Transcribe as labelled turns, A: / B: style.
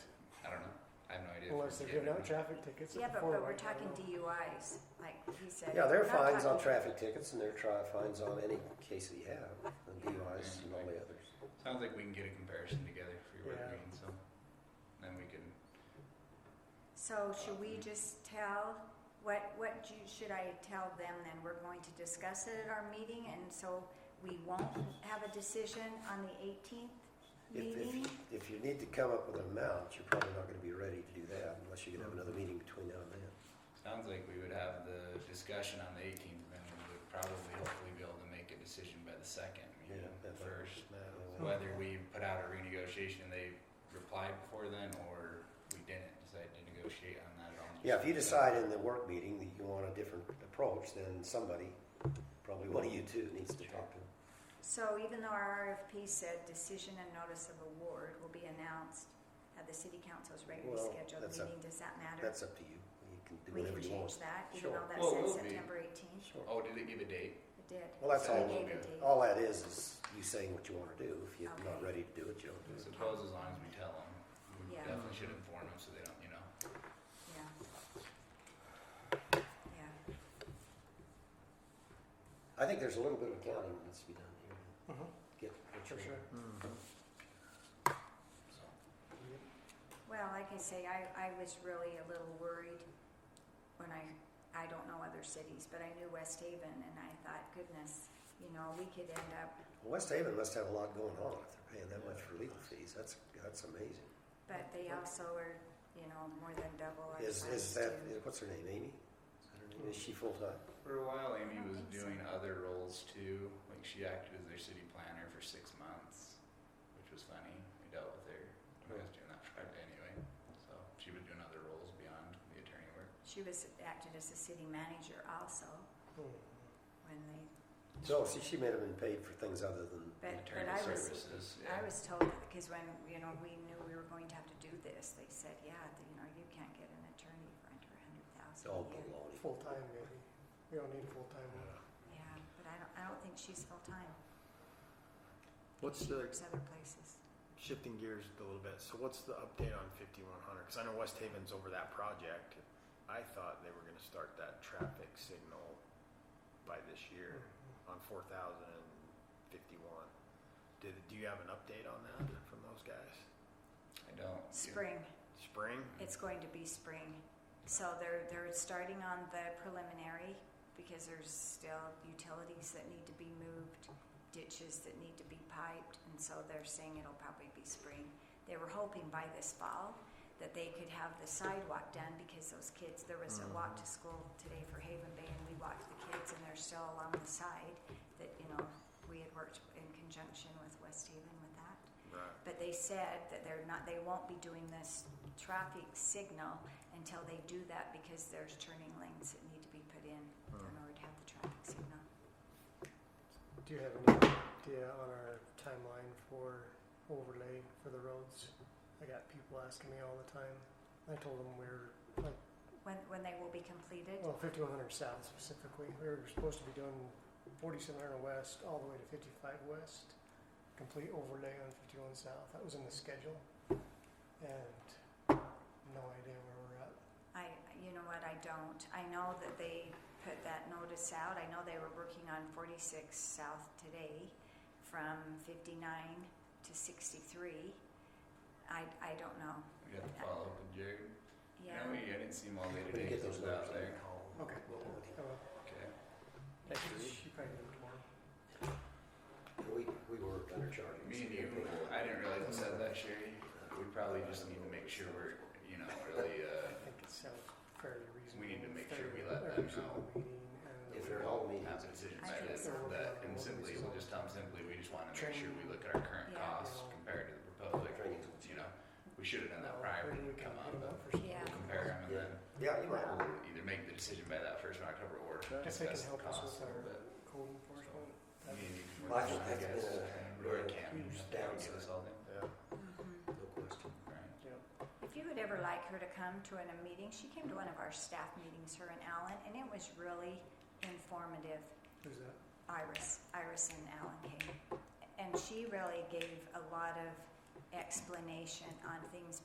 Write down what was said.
A: course, they're giving out traffic tickets
B: Yeah,
A: at the
B: but,
A: four
B: but
A: way.
B: we're talking DUIs, like he said.
C: Yeah, there
B: We're
C: are
B: not
C: fines on
B: talking-
C: traffic tickets and there are tri- fines on any case that you have, on DUIs and all the others.
D: Sounds like we can get a comparison together for your
A: Yeah.
D: work meeting, so then we can.
B: So should we just tell, what, what do you- should I tell them then? We're going to discuss it at our meeting and so we won't have a decision on the eighteenth
C: If, if,
B: meeting?
C: if you need to come up with an amount, you're probably not gonna be ready to do that unless you can have another meeting between now and then.
D: Sounds like we would have the discussion on the 18th, and then we would probably hopefully be able to make a decision by the second, you know,
C: Yeah, that's-
D: first.
C: No,
A: So-
C: well,
D: Whether we put out a renegotiation, they replied before then, or we didn't decide to negotiate on that at all.
C: Yeah, if you decide in the work meeting that you want a different approach, then somebody, probably one of you two, needs to talk to them.
B: So even though our RFP said decision and notice of award will be announced at the city council's regularly
C: Well,
B: scheduled
C: that's a-
B: meeting, does that matter?
C: That's up to you. You can do
B: We
C: whatever
B: can
C: you want.
B: change that, even
C: Sure.
B: though that
D: Well, it
B: says
D: will be.
B: September eighteenth,
C: Sure.
D: Oh, did it give a date?
B: it did.
C: Well, that's
B: They
C: all-
B: gave a date.
C: All that is, is you saying what you wanna do. If you're not
B: Okay.
C: ready to do it, you don't do
D: I
C: it.
D: suppose as long as we tell them, we
B: Yeah.
D: definitely should inform them so they don't, you know.
B: Yeah. Yeah,
C: I think there's a little bit of accounting that needs to be done here.
A: Mhm.
C: Get what you
A: For sure.
C: want.
A: Hmm.
D: So
B: well, like I say, I, I was really a little worried when I, I don't know other cities, but I knew West Haven and I thought, goodness, you know, we could end up,
C: West Haven must have a lot going on if they're paying that much for legal fees. That's, that's amazing.
B: but they also are, you know, more than
A: Oh,
B: double our
C: Is, is
B: size
C: that,
B: too.
C: is- what's her name, Amy? Is that her name?
A: Mm-hmm.
C: Is she full-time?
D: For a while, Amy
B: don't
D: was
B: think so.
D: doing other roles too. Like she acted as their city planner for six months, which was funny. We dealt with her. I was doing that Friday anyway, so she was doing other roles beyond the attorney work.
B: She was acted as a city manager also
A: Mhm.
B: when they,
C: No, see, she may have been paid for things other than,
B: but, but
D: attorney
B: I was,
D: services. yeah.
B: I was told, because when, you know, we knew we were going to have to do this, they said, yeah, th- you know, you can't get an attorney for under a hundred
C: it's
B: thousand a
C: all
B: year.
C: baloney.
A: Full-time maybe. We don't need full-time.
B: Yeah, but I don't, I don't think she's full-time.
E: What's
B: She
E: the Oh,
B: works other places.
E: shifting gears a little bit? So what's the update on 5100? Because I know West Haven's over that project. I thought they were going to start that traffic signal by this year
A: Hmm. Mm.
E: on 4051. Did, do you have an update on that from those guys?
D: I don't. do-
B: Spring,
E: Spring?
B: it's going to be spring. So they're, they're starting on the preliminary because there's still utilities that need to be moved, ditches that need to be piped, and so they're saying it'll probably be spring. They were hoping by this fall that they could have the sidewalk done because those kids, there was a walk to school today for Haven Bay and we walked the kids and they're still along the side that, you know, we had worked in conjunction with West Haven with that.
E: Right.
B: But they said that they're not, they won't be doing this traffic signal until they do that because there's turning lanes that need to be put in in order to have the traffic signal.
A: Do you have any idea on our timeline for overlay for the roads? I got people asking me all the time. I told them we were,
B: When, when they will be completed?
A: well, fifty-one hundred south specifically, we were supposed to be doing forty-seven hundred west all the way to fifty-five west. Complete overlay on fifty-one south, that was in the schedule. And no idea where we're at.
B: I, you know what, I don't. I know that they put that notice out. I know they were working on forty-six south today from fifty-nine to sixty-three. I, I don't know.
D: We Mm-hmm. have to follow up with Jared.
B: Yeah,
D: No, we, I didn't see him all day
C: We can
D: today.
C: get
D: so
C: those
D: it was out
C: numbers later.
D: there.
A: Okay. Oh, well,
D: Okay.
A: she probably did it tomorrow.
C: We, we were undercharging.
D: Me and you, I didn't realize you said that, Sherry. We probably just need to make sure we're, you know, really. Uh,
A: I think it sounds fairly reasonable.
D: We need to make
A: if
D: sure we let
A: they're- they're
D: them
A: using the
D: know.
A: meeting and
C: If
D: we
C: they're
D: will
C: all meetings.
D: Have a decision
B: I
D: by
B: think
D: then,
B: so.
D: that, and simply, we'll just tell them simply, we just wanna make sure we look at our current
B: Yeah.
D: costs compared to the proposed, like,
C: Training.
D: you know, we should have done that
A: No,
D: prior when
A: maybe
D: we
A: we
D: come
A: can
D: up,
A: put 'em
D: but
A: up for some-
B: Yeah.
D: we'll compare them and then
C: Yeah, you're right.
D: we'll either make the decision by that first of October or
A: If they can
D: discuss the
A: help
D: costs
A: us
D: a
A: with
D: little
A: our-
D: bit.
A: code enforcement.
D: I mean, you can
C: Well, I
D: work
C: think
D: on it,
C: that's
D: guess,
C: been a
D: and Roy
C: really
D: can,
C: huge
D: that would give us all the,
E: Yeah.
B: mhm.
C: No question.
D: right?
B: If you would ever like her to come to an, a meeting, she came to one of our staff meetings, her and Alan, and it was really informative.
A: Who's that?
B: Iris, Iris and Alan came, and she really gave a lot of explanation on things